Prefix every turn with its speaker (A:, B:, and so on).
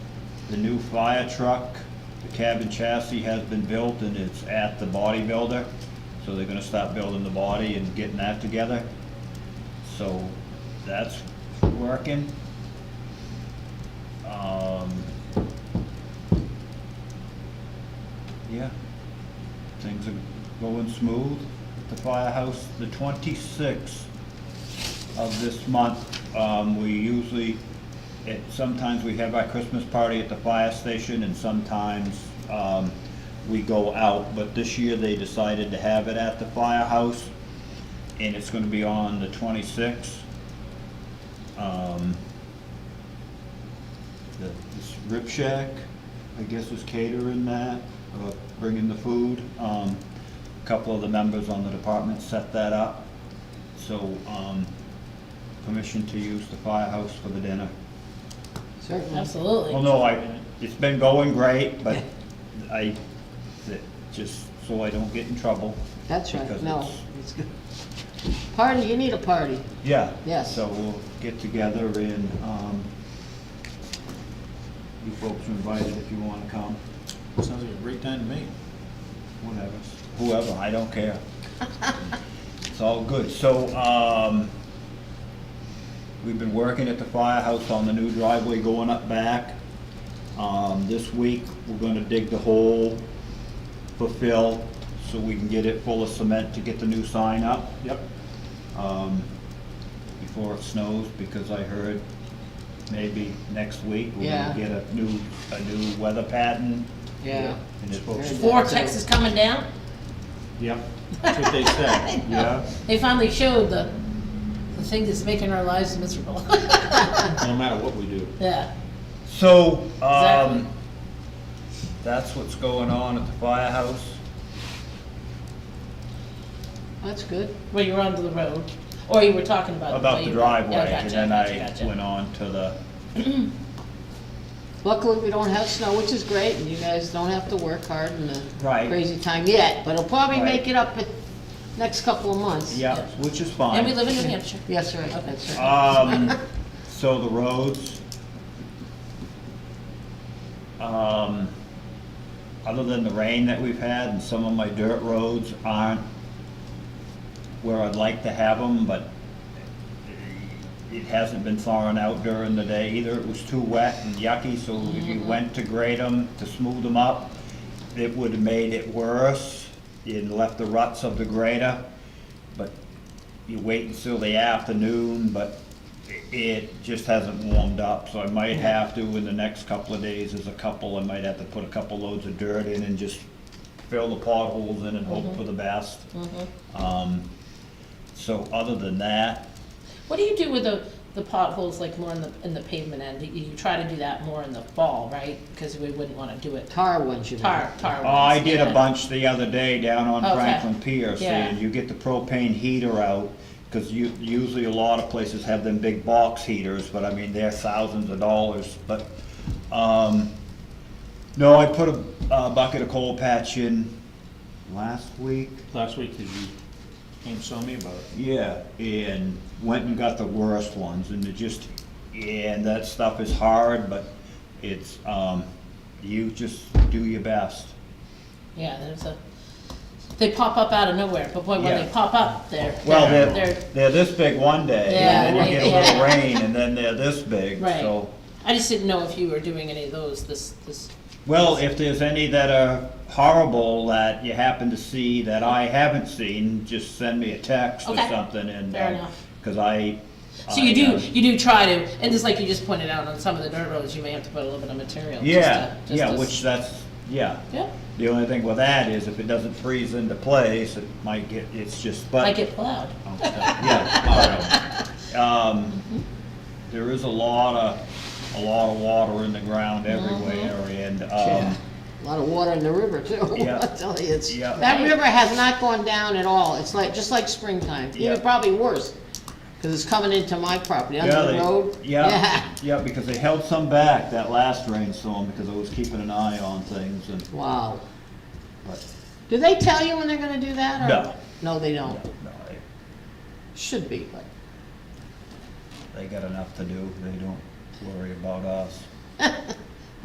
A: The new fire truck, the cabin chassis has been built and it's at the body builder. So they're gonna start building the body and getting that together. So that's working. Um, yeah, things are going smooth. The firehouse, the twenty-sixth of this month, um, we usually, it, sometimes we have our Christmas party at the fire station and sometimes, um, we go out, but this year they decided to have it at the firehouse and it's gonna be on the twenty-sixth. Um, the, this Rip Shack, I guess is catering that, or bringing the food. Um, a couple of the members on the department set that up. So, um, permission to use the firehouse for the dinner.
B: Certainly.
C: Absolutely.
A: Well, no, I, it's been going great, but I, that- just so I don't get in trouble.
B: That's right,
A: because
B: no.
A: it's-
B: it's good. Party, you need a party.
A: Yeah.
B: Yes.
A: So we'll get together and, um, you folks are invited if you wanna come,
D: Sounds like a great time to me.
A: whatever, whoever, I don't care. It's all good. So, um, we've been working at the firehouse on the new driveway going up back. Um, this week, we're gonna dig the hole for fill, so we can get it full of cement to get the new sign up.
D: Yep.
A: um, before it snows, because I heard maybe next week we're
B: Yeah.
A: gonna get a new, a new weather pattern.
B: Yeah.
A: And it's supposed to,
B: Very
C: Vortex is coming down.
D: Yep. That's what they said.
A: yeah,
C: They finally showed the, the thing that's making our lives miserable.
D: No matter what we do.
C: Yeah.
A: so,
C: Exactly.
A: um, that's what's going on at the firehouse.
B: That's good.
C: Well, you were onto the road, or you were talking about.
A: About
C: way
A: the
C: you-
A: driveway,
C: Yeah,
A: and
C: Oh, gotcha,
A: then
C: gotcha,
A: I
C: gotcha.
A: went on to the,
B: Luckily, we don't have snow, which is great, and you guys don't have to work hard in the
A: Right.
B: crazy time yet, but it'll probably
A: Right.
B: make it up in next couple of months.
A: yeah,
C: Yeah.
A: which is fine.
C: And we live in New Hampshire.
B: Yes, right, that's right.
A: Um, so the roads. Um, other than the rain that we've had and some of my dirt roads aren't where I'd like to have them, but it hasn't been thawing out during the day either. It was too wet and yucky, so if
C: Mm-hmm.
A: you went to grade them, to smooth them up, it would have made it worse. You'd left the ruts of the grader, but you wait until the afternoon, but i- it just hasn't warmed up, so I might have to in the next couple of days, there's a couple, I might have to put a couple loads of dirt in and just fill the potholes in and hope for the best. Um, so other than that,
C: What do you do with the, the potholes, like more in the, in the pavement end? You you try to do that more in the fall, right? Because we wouldn't want to do it
B: Tar ones, you know.
C: tar, tar.
A: oh, I
C: ones,
A: did a
C: yeah.
A: bunch the other day down on
C: Okay.
A: Franklin Pier, saying
C: Yeah.
A: you get the propane heater out, cause you, usually a lot of places have them big box heaters, but I mean, they're thousands of dollars, but, um, no, I put a, a bucket of coal patch in last week,
D: Last week, did you came and saw me about it?
A: Yeah, and went and got the worst ones, and it just, and that stuff is hard, but it's, um, you just do your best.
C: Yeah, there's a, they pop up out of nowhere, but boy, when
A: Yeah.
C: they pop up, they're,
A: Well, they're,
C: they're,
A: they're this big one day, and
C: Yeah,
A: then you get a
C: right,
A: little
C: yeah.
A: rain, and then they're this big,
C: Right.
A: so.
C: I just didn't know if you were doing any of those this, this,
A: Well, if there's any that are horrible that you happen to see that I haven't seen, just send me a text or
C: Okay.
A: something, and,
C: Fair
A: um,
C: enough.
A: cause I.
C: so you uh,
A: I,
C: do,
A: um,
C: you do try to, and just like you just pointed out, on some of the dirt roads, you may have to put a little bit of material. just
A: Yeah,
C: to- just
A: yeah,
C: to-
A: which that's, yeah.
C: Yeah,
A: The only thing with that is if it doesn't freeze into place, it might get, it's just, but.
C: I get plowed.
A: Oh, Yeah, all right. Um, there is a lot of, a lot of water in the ground everywhere and, um,
B: Yeah. A lot of water in the river, too.
A: Yeah.
B: I tell you, it's,
A: Yeah.
B: that river has not gone down at all. It's like, just like springtime,
A: Yeah.
B: even probably worse, because it's coming into my property,
A: yeah,
B: under the
A: they-
B: road.
A: Yeah, yeah, because they held some back that last rainstorm because I was keeping an eye on things and,
B: Wow.
A: but,
B: Do they tell you when they're gonna do that, or?
A: No.
B: No, they don't.
A: no, they,
B: Should be, but,
A: they got enough to do. They don't worry about us.